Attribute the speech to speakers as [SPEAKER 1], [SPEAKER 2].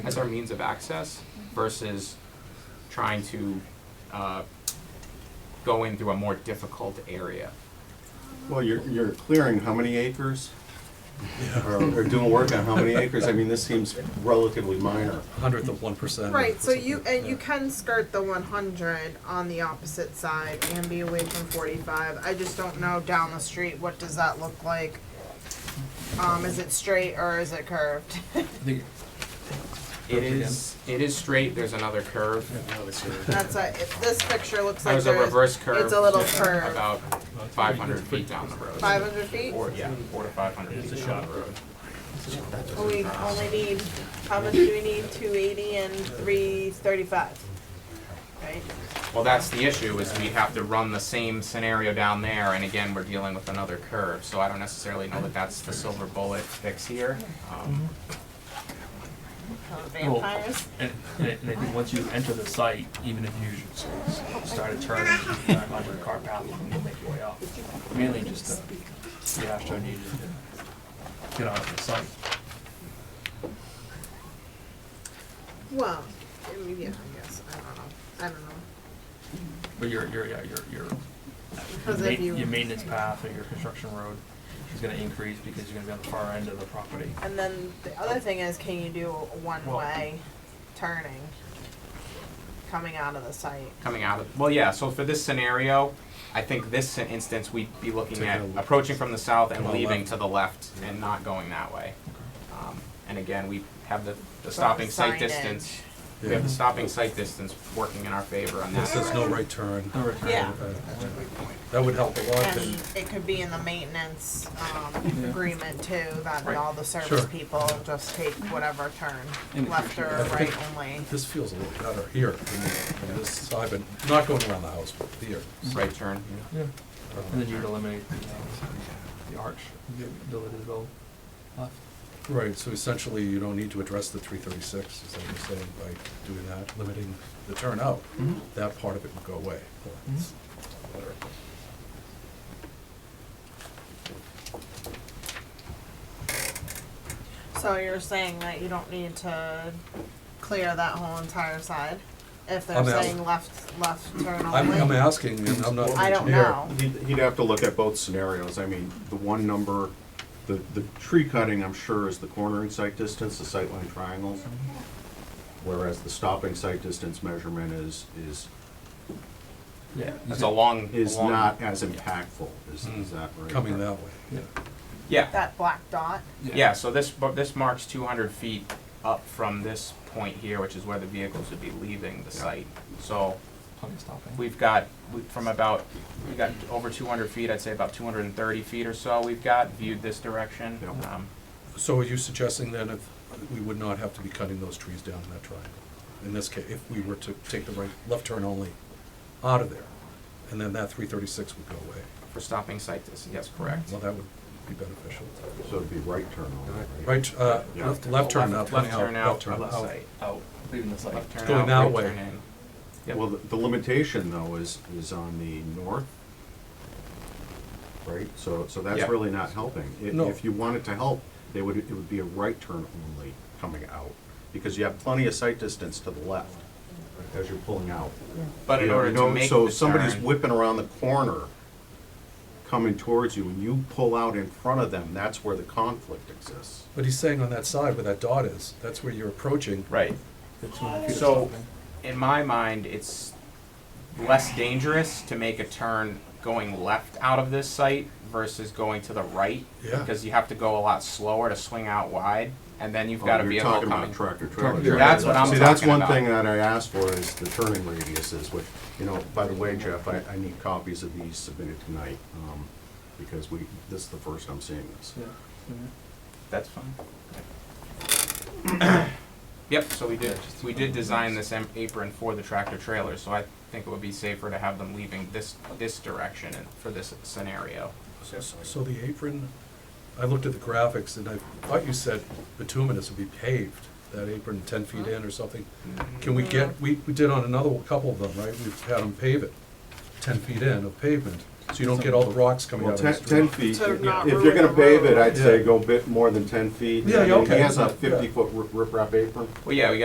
[SPEAKER 1] as our means of access versus trying to uh, go in through a more difficult area.
[SPEAKER 2] Well, you're, you're clearing how many acres? Or or doing work on how many acres? I mean, this seems relatively minor.
[SPEAKER 3] hundredth of one percent.
[SPEAKER 4] Right, so you, and you can skirt the one hundred on the opposite side and be away from forty-five, I just don't know down the street, what does that look like? Um, is it straight or is it curved?
[SPEAKER 1] It is, it is straight, there's another curve,
[SPEAKER 4] That's a, if this picture looks like
[SPEAKER 1] there's a
[SPEAKER 4] there's-
[SPEAKER 1] reverse curve.
[SPEAKER 4] It's a little curve,
[SPEAKER 1] About five hundred feet down the road.
[SPEAKER 4] five hundred feet,
[SPEAKER 1] Or, yeah, four to five hundred feet down the road.
[SPEAKER 4] Well, Oh, we only need, how much do we need, two eighty and three thirty-five? Right,
[SPEAKER 1] Well, that's the issue, is we have to run the same scenario down there, and again, we're dealing with another curve, so I don't necessarily know that that's the silver bullet fix here. Um,
[SPEAKER 4] Oh, vampires,
[SPEAKER 5] And, and I and I think once you enter the site, even if you s- s- start a turn, you're not under a car path, you can make your way out. Mainly just to, the Astro needed to get out of the site.
[SPEAKER 4] well, I mean, yeah, I guess, I don't know, I don't know.
[SPEAKER 5] But your, your, yeah, your, your, your
[SPEAKER 4] Because if
[SPEAKER 5] ma-
[SPEAKER 4] you-
[SPEAKER 5] your maintenance path or your construction road is gonna increase because you're gonna be on the far end of the property.
[SPEAKER 4] And then the other thing is, can you do a one-way turning coming out of the site?
[SPEAKER 1] Coming out of, well, yeah, so for this scenario, I think this instance, we'd be looking at approaching from the south and
[SPEAKER 3] Go
[SPEAKER 1] leaving
[SPEAKER 3] left.
[SPEAKER 1] to the left and not going that way. Um, And again, we have the, the stopping sight
[SPEAKER 4] Signage.
[SPEAKER 1] distance, we have the stopping sight distance working in our favor on that.
[SPEAKER 3] It says no right turn.
[SPEAKER 1] Oh,
[SPEAKER 5] No return.
[SPEAKER 4] Yeah.
[SPEAKER 3] Uh, That would help a lot,
[SPEAKER 4] And
[SPEAKER 3] and
[SPEAKER 4] it could be in the maintenance, um, agreement too, that
[SPEAKER 1] Right.
[SPEAKER 4] all the service
[SPEAKER 3] Sure.
[SPEAKER 4] people just take whatever turn,
[SPEAKER 5] In the
[SPEAKER 4] left or
[SPEAKER 3] I
[SPEAKER 4] right
[SPEAKER 3] think-
[SPEAKER 4] only.
[SPEAKER 3] this feels a little better here, than on this side, but not going around the house, but here.
[SPEAKER 1] Right turn,
[SPEAKER 5] Yeah, and then you would eliminate the, uh, the arch, the ability to go left.
[SPEAKER 3] Uh, Right, so essentially, you don't need to address the three thirty-six, is that what you're saying, by doing that, limiting the turnout, that part of it would go away.
[SPEAKER 5] Mm-hmm.
[SPEAKER 4] So you're saying that you don't need to clear that whole entire side? If they're
[SPEAKER 3] I'm out.
[SPEAKER 4] saying left, left turn
[SPEAKER 3] I'm, I'm
[SPEAKER 4] only?
[SPEAKER 3] asking, and I'm not an engineer.
[SPEAKER 4] I don't know.
[SPEAKER 2] He'd he'd have to look at both scenarios. I mean, the one number, the, the tree cutting, I'm sure, is the cornering sight distance, the sightline triangles. Whereas the stopping sight distance measurement is, is,
[SPEAKER 5] Yeah.
[SPEAKER 1] that's a long,
[SPEAKER 2] is
[SPEAKER 1] long-
[SPEAKER 2] not as impactful, is, is that right?
[SPEAKER 3] Coming that way.
[SPEAKER 5] Yeah.
[SPEAKER 1] Yeah,
[SPEAKER 4] That black dot?
[SPEAKER 1] Yeah, so this, bu- this marks two hundred feet up from this point here, which is where the vehicles would be leaving the site. So
[SPEAKER 5] Plenty of stopping.
[SPEAKER 1] we've got, we- from about, we got over two hundred feet, I'd say about two hundred and thirty feet or so we've got viewed this direction.
[SPEAKER 2] Yeah.
[SPEAKER 1] Um,
[SPEAKER 3] So are you suggesting then if, we would not have to be cutting those trees down in that triangle? In this case, if we were to take the right, left turn only out of there, and then that three thirty-six would go away?
[SPEAKER 1] For stopping site distance, yes, correct.
[SPEAKER 3] Well, that would be beneficial.
[SPEAKER 2] So it'd be right turn only,
[SPEAKER 3] Right, uh,
[SPEAKER 2] Yeah.
[SPEAKER 3] left, left turn out,
[SPEAKER 1] Left-
[SPEAKER 3] coming out, left turn
[SPEAKER 1] Left turn out of the
[SPEAKER 3] out.
[SPEAKER 1] site.
[SPEAKER 5] out, leaving the site.
[SPEAKER 1] Left turn
[SPEAKER 3] Going
[SPEAKER 1] out,
[SPEAKER 3] that
[SPEAKER 1] right
[SPEAKER 3] way.
[SPEAKER 1] turn in. Yep.
[SPEAKER 2] Well, the the limitation though is, is on the north, right? So, so that's
[SPEAKER 1] Yeah.
[SPEAKER 2] really not helping. If,
[SPEAKER 3] No.
[SPEAKER 2] if you wanted to help, they would, it would be a right turn only coming out, because you have plenty of sight distance to the left as you're pulling out.
[SPEAKER 1] But in
[SPEAKER 2] You know,
[SPEAKER 1] order
[SPEAKER 2] you
[SPEAKER 1] to
[SPEAKER 2] know,
[SPEAKER 1] make
[SPEAKER 2] So
[SPEAKER 1] the
[SPEAKER 2] if somebody's
[SPEAKER 1] turn-
[SPEAKER 2] whipping around the corner, coming towards you, and you pull out in front of them, that's where the conflict exists.
[SPEAKER 3] But he's saying on that side where that dot is, that's where you're approaching.
[SPEAKER 1] Right. So, in my mind, it's less dangerous to make a turn going left out of this site versus going to the right.
[SPEAKER 3] Yeah.
[SPEAKER 1] Because you have to go a lot slower to swing out wide, and then you've got a
[SPEAKER 2] Oh,
[SPEAKER 1] vehicle
[SPEAKER 2] You're talking
[SPEAKER 1] coming.
[SPEAKER 2] about tractor trailer.
[SPEAKER 1] trailer. That's what I'm
[SPEAKER 2] See, that's
[SPEAKER 1] talking
[SPEAKER 2] one
[SPEAKER 1] about.
[SPEAKER 2] thing that I asked for is the turning radiuses, which, you know, by the way, Jeff, I, I need copies of these submitted tonight, um, because we, this is the first I'm seeing this.
[SPEAKER 1] That's fine. Yep, so we did, we did design this em- apron for the tractor trailer, so I think it would be safer to have them leaving this, this direction and- for this scenario.
[SPEAKER 3] So the apron, I looked at the graphics and I thought you said bituminous would be paved, that apron ten feet in or something. Can we get, we, we did on another, one- couple of them, right? We've had them pave it, ten feet in of pavement, so you don't get all the rocks coming
[SPEAKER 2] Well,
[SPEAKER 3] out of the
[SPEAKER 2] ten,
[SPEAKER 3] street.
[SPEAKER 2] ten feet,
[SPEAKER 4] To
[SPEAKER 2] if
[SPEAKER 4] not
[SPEAKER 2] you're
[SPEAKER 4] ruin
[SPEAKER 2] gonna
[SPEAKER 4] the
[SPEAKER 2] pave it,
[SPEAKER 4] road.
[SPEAKER 2] I'd say
[SPEAKER 3] Yeah.
[SPEAKER 2] go bit more than ten feet.
[SPEAKER 3] Yeah, yeah,
[SPEAKER 2] I mean,
[SPEAKER 3] okay.
[SPEAKER 2] He has a
[SPEAKER 3] Yeah.
[SPEAKER 2] fifty-foot riprap apron.
[SPEAKER 1] Well, yeah, we